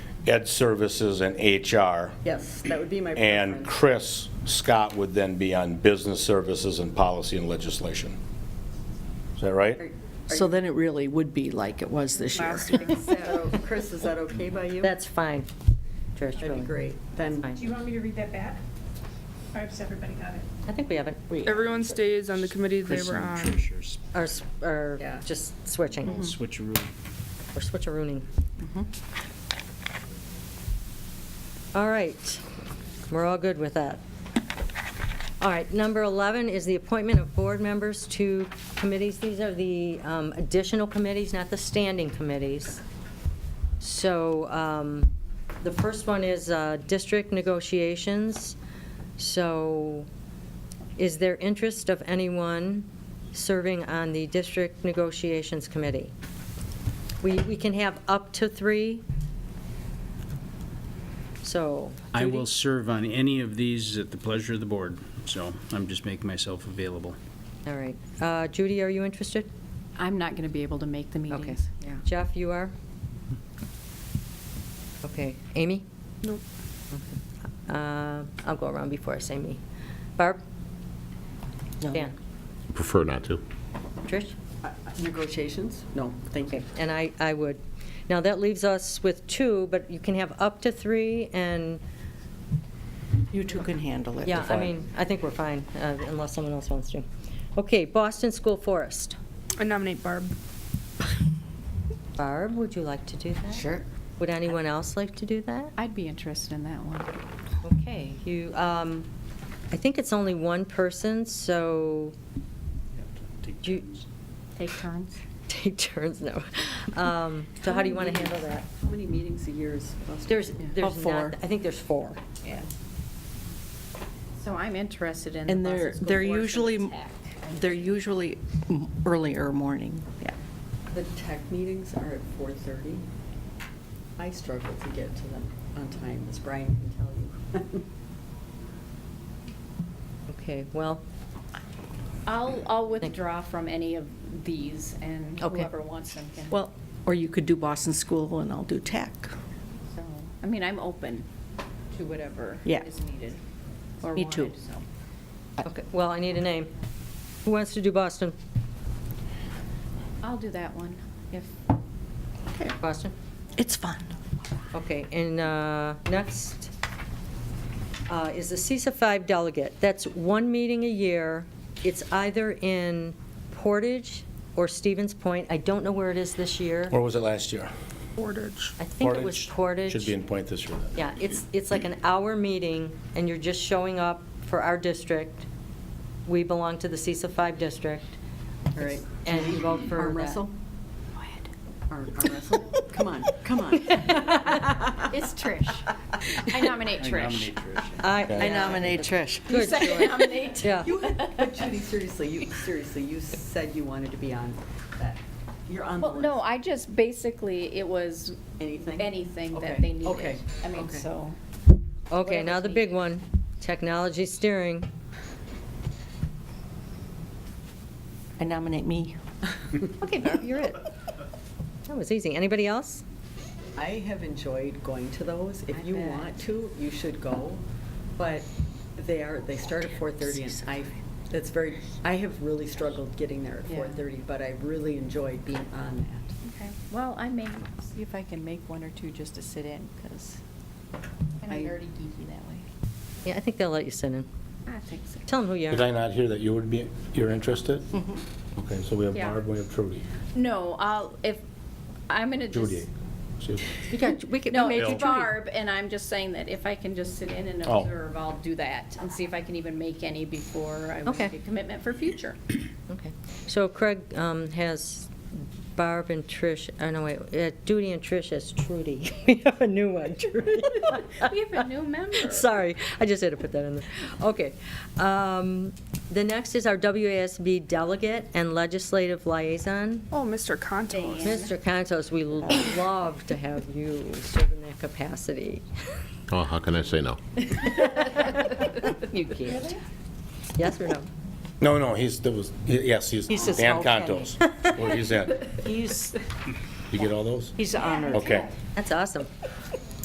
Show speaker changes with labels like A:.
A: Ed Services and HR.
B: Yes, that would be my
A: And Chris
B: preference.
A: Scott would then be on Business Services and Policy and Legislation. Is that right?
C: So then it really would be like it was this year.
B: Last week, so, Chris, is that okay by you?
D: That's fine, Trish.
B: That'd be great. Then,
D: Fine.
E: Do you want me to read that back? Or has everybody got it?
D: I think we have it, we,
F: Everyone stays on the committee they
G: Chris
F: were
G: and
F: on.
G: Trisha's
D: or, s- or
B: Yeah.
D: just switching,
G: switcheroo.
D: or switcherooning. All right, we're all good with that. All right, number 11 is the appointment of board members to committees. These are the um, additional committees, not the standing committees. So um, the first one is uh, district negotiations. So is there interest of anyone serving on the district negotiations committee? We we can have up to three. So.
G: I
D: Judy?
G: will serve on any of these at the pleasure of the board, so I'm just making myself available.
D: All right. Uh, Judy, are you interested?
H: I'm not going to be able to make the
D: Okay.
H: meetings. Yeah.
D: Jeff, you are? Okay. Amy?
F: Nope.
D: Uh, I'll go around before I say me. Barb?
C: No.
D: Dan?
I: Prefer not to.
D: Trish?
B: uh, negotiations? No, thank you.
D: And I, I would. Now, that leaves us with two, but you can have up to three, and,
C: You two can handle it.
D: yeah, I mean, I think we're fine, uh, unless someone else wants to. Okay, Boston School Forest.
F: I nominate Barb.
D: Barb, would you like to do that?
C: Sure.
D: Would anyone else like to do that?
H: I'd be interested in that one.
D: Okay, you, um, I think it's only one person, so Do you-
H: Take turns.
D: take turns now. Um, So how do you want to handle that?
B: How many meetings a year is?
D: There's, there's
C: four.
D: not, I think there's four.
B: Yeah.
H: So I'm interested in. the
C: And
H: Boston
C: they're,
H: School
C: they're
H: Board for
C: usually,
H: the tech.
C: they're usually m- earlier morning. Yeah.
B: The tech meetings are at 4:30. I struggle to get to them on time, as Brian can tell you.
D: Okay, well,
H: I'll, I'll withdraw from any of these and
D: Okay.
H: whoever wants them can.
C: Well, or you could do Boston School and I'll do tech.
H: So, I mean, I'm open to whatever
C: Yeah.
H: is needed or
C: Me too.
H: wanted, so.
D: okay, well, I need a name. Who wants to do Boston?
H: I'll do that one if,
D: Boston?
C: It's fun.
D: Okay, and uh, next uh, is the CISA 5 delegate. That's one meeting a year. It's either in Portage or Stevens Point. I don't know where it is this year.
A: Where was it last year?
F: Portage.
D: I think it was Portage.
A: Should be in point this year then.
D: Yeah, it's, it's like an hour meeting, and you're just showing up for our district. We belong to the CISA 5 district.
B: All right.
D: And you vote for
B: Arm
D: that.
B: wrestle? Arm arm wrestle? Come on, come on.
H: it's Trish. I nominate
G: I
H: Trish.
G: nominate Trish.
D: I
A: Okay. I
C: Nominate Trish.
D: Good, Joy.
H: Nominate.
D: Yeah.
B: You, but Judy, seriously, you, seriously, you said you wanted to be on that. You're on the
H: Well,
B: list.
H: no, I just, basically, it was
B: Anything?
H: anything
B: Okay,
H: that they needed.
B: okay,
H: I mean,
B: okay.
H: so.
D: Okay, now the
H: Whatever's
D: big
H: needed.
D: one, technology steering.
C: I nominate me.
D: Okay, you're it. That was easy. Anybody else?
B: I have enjoyed going to those. If
H: I
B: you
H: bet.
B: want to, you should go, but they are, they start at 4:30, and I, that's very, I have really struggled getting there at
H: Yeah.
B: 4:30, but I really enjoyed being on that.
H: Okay, well, I may, see if I can make one or two just to sit in, because I'm
B: I-
H: nerdy geeky that way.
D: Yeah, I think they'll let you sit in.
H: I think so.
D: Tell them who you
I: Did
D: are.
I: I not hear that you would be, you're interested?
D: Mm-hmm.
I: Okay, so we have
H: Yeah.
I: Barb, we have Trudy.
H: No, I'll, if, I'm gonna just.
I: Judy. excuse me.
D: We got, we could we
H: No,
D: made you
H: it's
D: Judy.
H: Barb, and I'm just saying that if I can just sit in and
I: Oh.
H: observe, I'll do that, and see if I can even make any before I would
D: Okay.
H: make a commitment for future.
D: Okay. So Craig um, has Barb and Trish, oh no, wait, uh, Judy and Trish as Trudy. We have a new one, Trudy.
H: We have a new member.
D: Sorry, I just had to put that in there. Okay. Um, The next is our WASB delegate and legislative liaison.
F: Oh, Mr. Contos.
D: Mr. Contos, we love to have you serve in that capacity.
I: Oh, how can I say no?
D: You can't. Yes or no?
A: No, no, he's, there was, yes, he's
C: He's just
A: Dan
C: okay.
A: Contos, where he's at.
C: He's,
A: You get all those?
C: he's honored.
A: Okay.
D: That's awesome.